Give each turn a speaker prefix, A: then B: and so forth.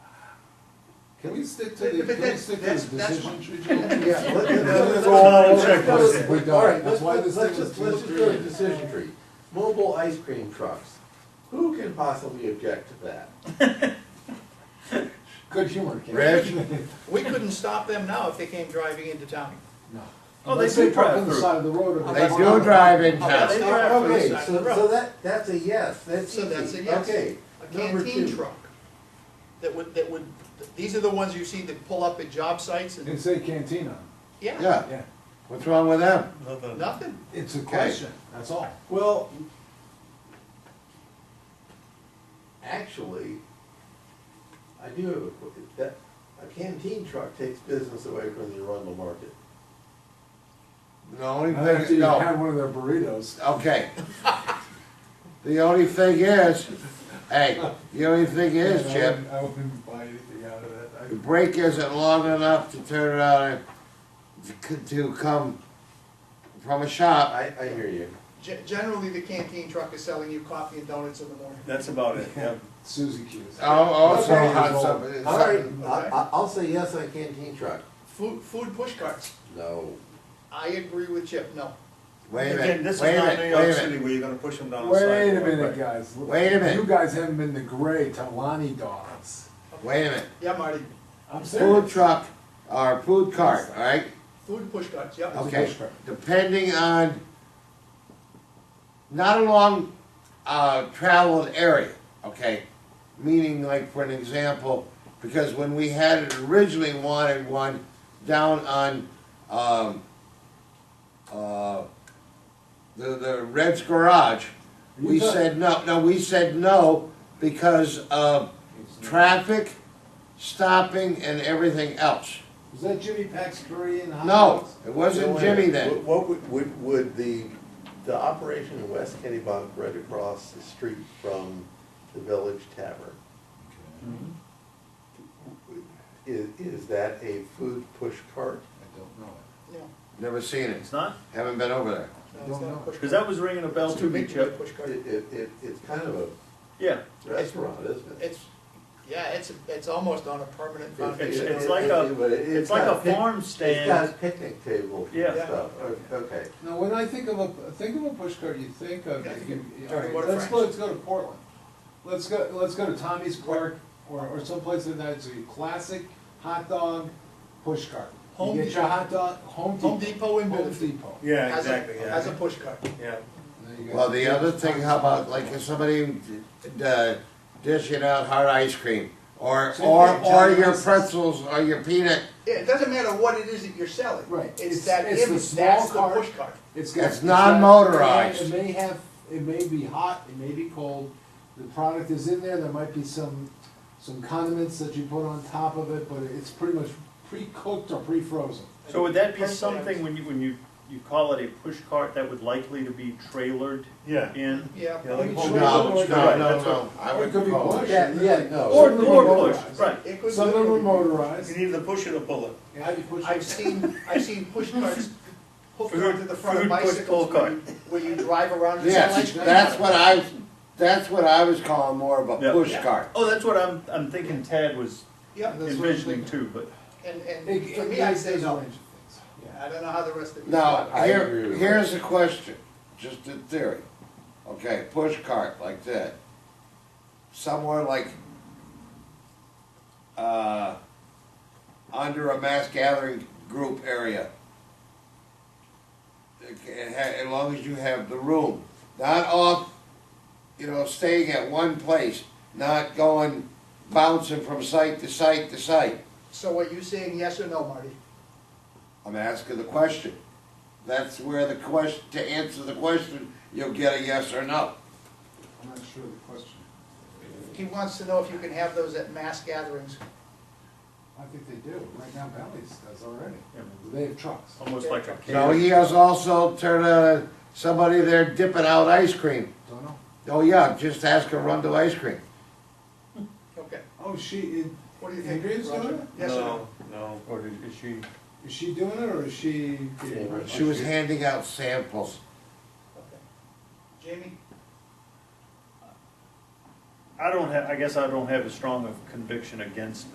A: Can we stick to the, can
B: But
A: we
B: that-
A: stick to the
B: that's- that's
A: decision tree, Joe?
C: Yeah, let- let-
A: That's
C: let's-
A: all
C: let's-
A: checklists.
C: let's-
A: We're done.
C: All right,
A: That's
C: let's,
A: why this
C: let's, let's
A: thing
C: just,
A: was
C: let's just do a
A: administrative.
C: decision tree. Mobile ice cream trucks, who can possibly object to that?
A: Good humor, Ken.
C: Reg?
B: We couldn't stop them now if they came driving into town.
A: No.
D: Oh,
A: Unless
D: they do
A: park
D: drive
A: on the
D: through.
A: side of the road. or-
B: They do
A: Well,
E: drive in
B: Oh, that's
E: town.
B: not right for the
C: Okay,
B: side of
C: so,
B: the road.
C: so that, that's a yes, that's
B: So that's a
C: easy.
B: yes.
C: okay.
B: A
C: number
B: canteen
C: two.
B: truck that would, that would, these are the ones you see that pull up at job sites
A: And
B: and,
A: say canteen on
B: yeah,
E: Yeah,
A: Yeah.
E: what's wrong with them?
B: nothing.
A: it. It's a question, that's all.
C: Well, actually, I do have a, qu- that, a canteen truck takes business away from the Arundel market.
E: The only
A: After
E: thing,
A: you
E: no,
A: had one of their burritos.
E: okay. The only thing is, hey, the only thing is,
A: Yeah, I
E: Chip,
A: wouldn't- I wouldn't buy anything out of that.
E: the break isn't long enough to turn around and to- to come from a shop.
C: I, I hear you.
B: Ge- Generally, the canteen truck is selling you coffee and donuts in the morning.
F: That's about it, yeah.
A: Suzy Q's.
E: Oh, also,
C: Okay.
E: hot something.
C: All right, I, I- I'll say yes on canteen truck.
B: Food, food push carts,
C: No.
B: I agree with Chip, no.
E: Wait a
F: Again,
E: minute,
F: this is
E: wait a
F: not New
E: minute, wait
F: York
E: a
F: City
E: minute.
F: where you're gonna push them down the sidewalk.
A: Wait a minute,
F: right?
A: guys.
E: Wait a minute.
A: You guys haven't been to Gray Talani Dogs.
E: Wait a minute,
B: Yeah, Marty,
A: I'm
E: food
A: serious.
E: truck or food cart, all right?
B: food push carts, yeah.
A: It's a
E: Okay,
A: push cart.
E: depending on, not a long, uh, traveled area, okay? Meaning like, for an example, because when we had it originally wanted one down on, um, uh, the, the Red's Garage, we
A: You thought-
E: said no, no, we said no because of traffic, stopping and everything else.
A: Was that Jimmy Pax Korean hot
E: No,
A: dogs?
E: it wasn't Jimmy then.
C: What- What would, would, would the, the operation in West Kennebunk right across the street from the Village Tavern? Is, is that a food push cart?
A: I don't know.
B: No,
E: Never seen it.
F: It's not,
E: Haven't been over there.
B: no, it's not a push cart.
F: because that was ringing a bell
B: It's
F: to
B: too
F: me,
B: big to be a
F: Chip.
B: push cart.
C: It, it, it- it's kind of a
F: Yeah,
C: restaurant, isn't it?
B: It's, yeah, it's, it's almost on a permanent
F: It's-
B: foundation.
F: it's like a-
C: But it-
F: it's like
C: got
F: a
C: pic-
F: farm
C: It's
F: stand.
C: got a picnic table and
F: Yeah.
C: stuff, okay.
A: Now, when I think of a, think of a push cart, you think of,
B: Yeah, I think
A: you-
B: of
A: all right,
B: Water
A: let's
B: French.
A: go, let's go to Portland. Let's go, let's go to Tommy's Park or, or someplace like that, it's a classic hot dog push cart.
B: Home
A: You get your
B: Depot.
A: hot dog, Home Depot.
B: Home Depot in
A: Home
B: Middlefield.
A: Depot.
F: yeah,
B: As a,
F: exactly,
B: as a
F: yeah,
B: push cart.
F: yeah.
A: There you go.
E: Well, the other thing, how about like if somebody uh, dishing out hard ice cream or
A: Same
E: or
A: thing,
E: or
A: Johnny
E: your
A: Ices.
E: pretzels or your peanut?
B: Yeah, it doesn't matter what it is that you're selling.
A: Right.
B: It's
A: It's-
B: that
A: it's the
B: image,
A: small
B: that's the
A: cart.
B: push cart.
A: It's got.
E: It's
A: got-
E: non-motorized.
A: It may have, it may be hot, it may be cold, the product is in there, there might be some, some condiments that you put on top of it, but it's pretty much pre-cooked or pre-frozen.
F: So would that be
B: Personally, I was-
F: something when you, when you, you call it a push cart that would likely to be trailered
D: Yeah.
F: in?
B: Yeah.
D: Yeah, like
A: No,
D: home
E: No,
D: Depot,
E: no,
F: Right,
E: no,
F: that's what-
E: no. I
A: Or it
E: would
A: could be
E: call it.
A: push.
C: Oh, Yeah, yeah, no.
F: Or,
A: Certainly
F: or
A: motorized.
F: push, right.
B: It could-
A: Some of them are motorized.
D: You need the push or the pull
A: How do you push
B: I've
A: it?
B: seen, I've seen push carts hooked
F: Food-
B: onto the front of
F: food push pull
B: bicycles where you, where you drive around and sell ice
E: Yes,
B: cream.
E: that's what I, that's what I was calling more of a
F: Yeah.
E: push cart.
F: Oh, that's what I'm, I'm thinking Tad was
B: Yep,
A: That's what I'm
F: envisioning
A: thinking.
F: too, but,
B: and,
A: It-
B: and for
A: it-
B: me, I
A: there's
B: say
A: a
B: no.
A: range of things.
B: I don't know how the rest of you.
E: Now,
C: I agree
E: here,
C: with
E: here's a question, just in theory. Okay, push cart like that. Somewhere like, uh, under a mass gathering group area. It ha- As long as you have the room, not off, you know, staying at one place, not going bouncing from site to site to site.
B: So are you saying yes or no, Marty?
E: I'm asking the question. That's where the question, to answer the question, you'll get a yes or no.
A: I'm not sure of the question.
B: He wants to know if you can have those at mass gatherings.
A: I think they do, right now Valley's does already.
F: yeah,
A: They have trucks.
B: Oh,
F: almost like a
E: So
F: cage.
E: he has also turned uh somebody there dipping out ice cream.
A: Don't know.
E: Oh yeah, just ask her Rundle Ice Cream.
B: Okay,
A: Oh, she, it,
B: what do you think?
A: Andrea's doing
B: Roger?
A: it?
B: Yes or no?
D: No,
F: Or did- is she,
A: is she doing it or is she?
C: Yeah.
E: She was handing out samples.
B: Okay. Jamie?
F: I don't have, I guess I don't have as strong of conviction against